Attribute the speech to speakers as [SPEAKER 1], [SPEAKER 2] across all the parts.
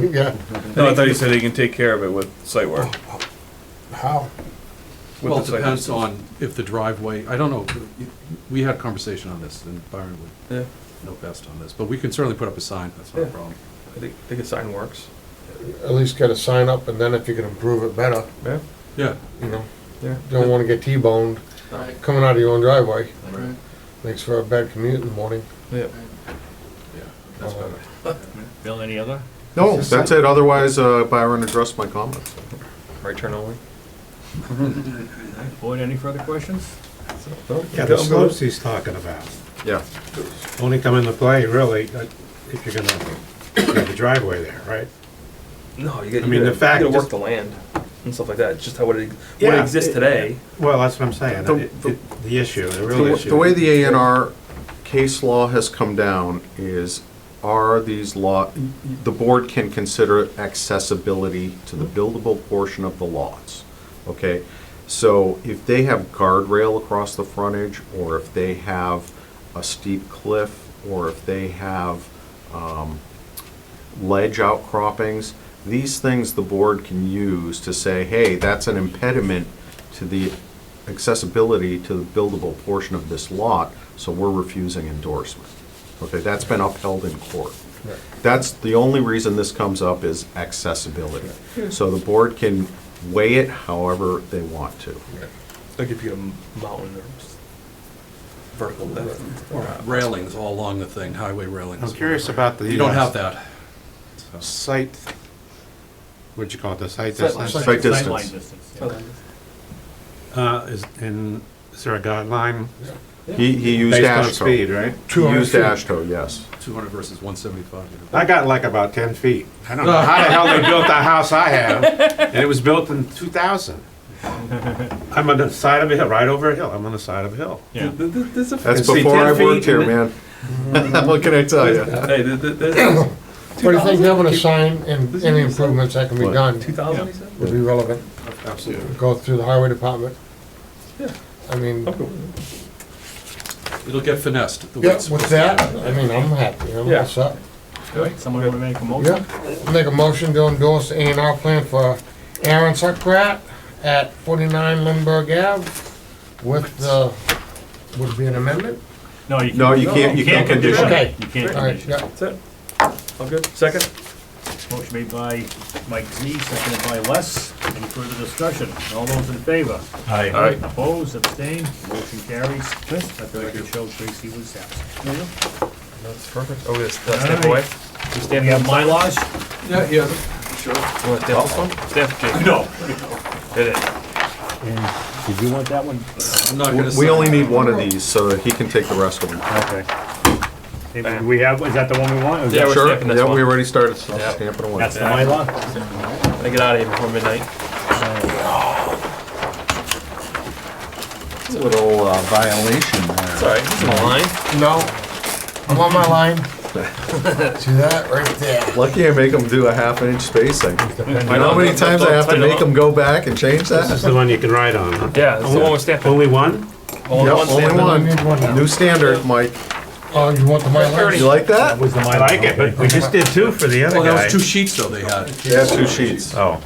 [SPEAKER 1] Yeah,
[SPEAKER 2] No, I thought you said he can take care of it with site work.
[SPEAKER 1] how?
[SPEAKER 2] with
[SPEAKER 3] Well,
[SPEAKER 2] the
[SPEAKER 3] it
[SPEAKER 2] site
[SPEAKER 3] depends
[SPEAKER 2] work.
[SPEAKER 3] on if the driveway, I don't know, we had a conversation on this, and Byron
[SPEAKER 4] Yeah,
[SPEAKER 3] would know best on this, but we can certainly put up a sign, that's not a
[SPEAKER 4] Yeah.
[SPEAKER 3] problem.
[SPEAKER 4] I think, I think a sign works.
[SPEAKER 1] At least get a sign up and then if you can improve it better,
[SPEAKER 4] Yeah,
[SPEAKER 3] Yeah,
[SPEAKER 1] you know,
[SPEAKER 4] yeah.
[SPEAKER 1] don't wanna get T-boned
[SPEAKER 5] Right,
[SPEAKER 1] coming out of your own driveway.
[SPEAKER 5] right,
[SPEAKER 1] Makes for a bad commute in the morning.
[SPEAKER 4] Yeah.
[SPEAKER 3] yeah, that's better.
[SPEAKER 5] Bill, any other?
[SPEAKER 6] No, that's it, otherwise uh, Byron addressed my comments.
[SPEAKER 4] Right turn only.
[SPEAKER 5] Board, any further questions?
[SPEAKER 7] Yeah, the slopes he's talking about
[SPEAKER 6] Yeah.
[SPEAKER 7] only come into play really uh, if you're gonna have a driveway there, right?
[SPEAKER 4] No, you get,
[SPEAKER 7] I
[SPEAKER 4] you
[SPEAKER 7] mean, the
[SPEAKER 4] gotta,
[SPEAKER 7] fact
[SPEAKER 4] you gotta
[SPEAKER 7] just-
[SPEAKER 4] work the land and stuff like that, It's just how it, what
[SPEAKER 7] Yeah,
[SPEAKER 4] exists
[SPEAKER 7] it-
[SPEAKER 4] today.
[SPEAKER 7] Well, that's what I'm saying,
[SPEAKER 6] The-
[SPEAKER 7] it- it- the issue, the real issue.
[SPEAKER 6] The way the A and R case law has come down is, are these law, the board can consider accessibility to the buildable portion of the lots, okay? So if they have guardrail across the frontage, or if they have a steep cliff, or if they have, um, ledge outcroppings, these things the board can use to say, hey, that's an impediment to the accessibility to the buildable portion of this lot, so we're refusing endorsement. Okay, that's been upheld in court. That's, the only reason this comes up is accessibility. So the board can weigh it however they want to.
[SPEAKER 4] Like if you get a mountain or s- vertical depth.
[SPEAKER 3] Railings all along the thing, highway railings.
[SPEAKER 7] I'm curious about the.
[SPEAKER 3] You don't
[SPEAKER 7] uh,
[SPEAKER 3] have that.
[SPEAKER 7] Site, what'd you call it, the site
[SPEAKER 5] Sight-
[SPEAKER 7] distance?
[SPEAKER 6] Sight distance.
[SPEAKER 5] Sightline distance, yeah.
[SPEAKER 7] Uh, is, and is there a guideline
[SPEAKER 6] He, he used
[SPEAKER 7] based on
[SPEAKER 6] ASHTO.
[SPEAKER 7] speed, right?
[SPEAKER 6] He used ASHTO, yes.
[SPEAKER 3] 200 versus 175. you know.
[SPEAKER 7] I got like about ten feet. I don't know how the hell they built the house I have, and it was built in two thousand. I'm on the side of a hill, right over a hill, I'm on the side of a hill.
[SPEAKER 5] Yeah.
[SPEAKER 4] Th- th- There's a,
[SPEAKER 6] That's
[SPEAKER 7] And see,
[SPEAKER 6] before
[SPEAKER 7] 10
[SPEAKER 6] I
[SPEAKER 7] feet
[SPEAKER 6] worked here,
[SPEAKER 7] and
[SPEAKER 6] man. What can I tell you?
[SPEAKER 4] hey, th- th- there's
[SPEAKER 1] But I think having a sign and any improvements that can be
[SPEAKER 6] What?
[SPEAKER 1] done
[SPEAKER 4] two thousand, he said?
[SPEAKER 1] would be relevant.
[SPEAKER 7] Absolutely.
[SPEAKER 1] Go through the highway department.
[SPEAKER 4] Yeah.
[SPEAKER 1] I mean,
[SPEAKER 4] I'm cool with it.
[SPEAKER 3] It'll get finessed. the way
[SPEAKER 1] yeah,
[SPEAKER 3] it's
[SPEAKER 1] with
[SPEAKER 3] supposed to
[SPEAKER 1] that,
[SPEAKER 3] be.
[SPEAKER 1] I mean, I'm happy, I'm
[SPEAKER 4] Yeah.
[SPEAKER 1] all set.
[SPEAKER 5] All right, Someone want to make a motion?
[SPEAKER 1] Yeah, make a motion to endorse A and R plan for Aaron Sokrat at forty-nine Lindbergh Ave with the, would it be an amendment?
[SPEAKER 5] No, you can't.
[SPEAKER 6] No, you can't, you can't condition it.
[SPEAKER 1] Okay.
[SPEAKER 5] it. You can't
[SPEAKER 1] All right,
[SPEAKER 5] condition
[SPEAKER 1] yeah,
[SPEAKER 5] it.
[SPEAKER 4] That's it. All good. Second?
[SPEAKER 5] Motion made by Mike Z, seconded by Les. Any further discussion? All those in favor?
[SPEAKER 4] Aye.
[SPEAKER 5] Opposed, abstained, motion carries. Let the record show Tracy was absent.
[SPEAKER 4] That's perfect. Oh, this, that's
[SPEAKER 5] All
[SPEAKER 4] step
[SPEAKER 5] right.
[SPEAKER 4] away.
[SPEAKER 5] We stand on my laws?
[SPEAKER 3] Yeah, yeah.
[SPEAKER 4] You want to dip this one?
[SPEAKER 5] Steph, No.
[SPEAKER 4] Hit it.
[SPEAKER 5] Did you want that one?
[SPEAKER 3] I'm not gonna.
[SPEAKER 6] We
[SPEAKER 3] sign
[SPEAKER 6] only
[SPEAKER 3] it.
[SPEAKER 6] need one of these, so he can take the rest of them.
[SPEAKER 5] Okay. Hey, do We have, is that the one we want? Is
[SPEAKER 4] Yeah,
[SPEAKER 5] that-
[SPEAKER 4] we're
[SPEAKER 6] Sure,
[SPEAKER 4] stamping this
[SPEAKER 6] yeah,
[SPEAKER 4] one.
[SPEAKER 6] we already started
[SPEAKER 4] Yeah.
[SPEAKER 6] stamping away.
[SPEAKER 5] That's the my law?
[SPEAKER 4] I get out of here before midnight.
[SPEAKER 6] That's a little uh, violation there.
[SPEAKER 4] Sorry, he's in line.
[SPEAKER 1] no, I'm on my line. See that, right there.
[SPEAKER 6] Lucky I make them do a half inch spacing. You know how many
[SPEAKER 4] Don't-
[SPEAKER 6] times I
[SPEAKER 4] don't
[SPEAKER 6] have to
[SPEAKER 4] tighten
[SPEAKER 6] make
[SPEAKER 4] up.
[SPEAKER 6] them go back and change
[SPEAKER 7] This is
[SPEAKER 6] that?
[SPEAKER 7] the one you can ride on, huh?
[SPEAKER 4] Yeah, it's the one with stamping.
[SPEAKER 7] Only one?
[SPEAKER 4] Only one
[SPEAKER 6] Yep, only
[SPEAKER 4] stamping.
[SPEAKER 6] one.
[SPEAKER 1] Need one now.
[SPEAKER 6] New standard, Mike.
[SPEAKER 1] Oh, you want the
[SPEAKER 6] You
[SPEAKER 1] Mylar?
[SPEAKER 6] like that?
[SPEAKER 5] Was the my
[SPEAKER 7] I like it, but we just did two for the other
[SPEAKER 3] Well, Oh, that
[SPEAKER 7] guy.
[SPEAKER 3] was two sheets though they had.
[SPEAKER 6] Yeah, two sheets.
[SPEAKER 7] Oh.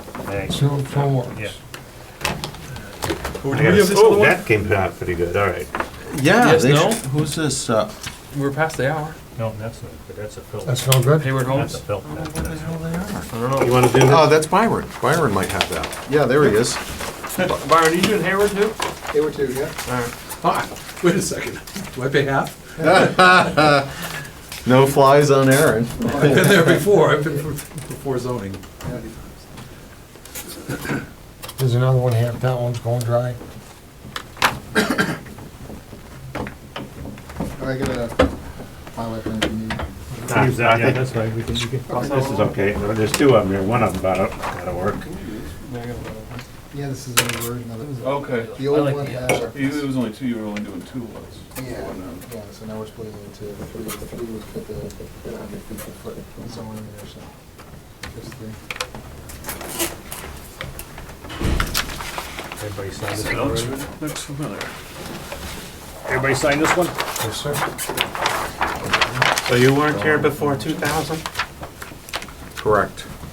[SPEAKER 1] Two, four.
[SPEAKER 5] Yeah.
[SPEAKER 3] Who-
[SPEAKER 7] I
[SPEAKER 3] do we have
[SPEAKER 7] gotta-
[SPEAKER 3] this other
[SPEAKER 7] Oh,
[SPEAKER 3] one?
[SPEAKER 7] that came out pretty good, all right.
[SPEAKER 6] Yeah.
[SPEAKER 4] Yes,
[SPEAKER 6] they
[SPEAKER 4] no?
[SPEAKER 6] sh- Who's this, uh,
[SPEAKER 4] We're past the hour.
[SPEAKER 5] No, that's a, that's a film.
[SPEAKER 1] That's no good?
[SPEAKER 4] Hayward
[SPEAKER 5] That's a
[SPEAKER 4] Holmes.
[SPEAKER 5] film. That's-
[SPEAKER 4] I don't
[SPEAKER 7] You
[SPEAKER 4] know.
[SPEAKER 7] wanna do
[SPEAKER 6] oh,
[SPEAKER 7] this?
[SPEAKER 6] that's Byron. Byron might have that. Yeah, there he is.
[SPEAKER 4] Byron, are you doing Hayward too?
[SPEAKER 6] Hayward too, yeah.
[SPEAKER 3] Wait a second. Do I pay half?
[SPEAKER 6] No flies on Aaron.
[SPEAKER 3] I've been there before. I've been before zoning.
[SPEAKER 1] There's another one here, that one's going dry.
[SPEAKER 8] I get a pilot thing if you need.
[SPEAKER 5] Ah,
[SPEAKER 7] I
[SPEAKER 5] that- Yeah,
[SPEAKER 7] think-
[SPEAKER 5] that's right, we can, we can.
[SPEAKER 3] Oh.
[SPEAKER 7] This is okay, No, there's two of them there, one of them gotta, gotta work.
[SPEAKER 8] Yeah, this is a new version of it.
[SPEAKER 2] Okay.
[SPEAKER 8] The
[SPEAKER 5] I
[SPEAKER 8] old
[SPEAKER 5] like
[SPEAKER 8] one
[SPEAKER 5] the
[SPEAKER 8] had.
[SPEAKER 2] Either It was only two, you were only doing two lots.
[SPEAKER 8] Yeah,
[SPEAKER 2] um,
[SPEAKER 8] yeah, so now we're splitting it into, the three, the three would fit the, the hundred fifty foot somewhere in there, so. Just three.
[SPEAKER 5] Everybody sign this one? Looks familiar. Everybody sign this one?
[SPEAKER 1] Yes, sir.
[SPEAKER 7] So you weren't here before two thousand?
[SPEAKER 6] Correct.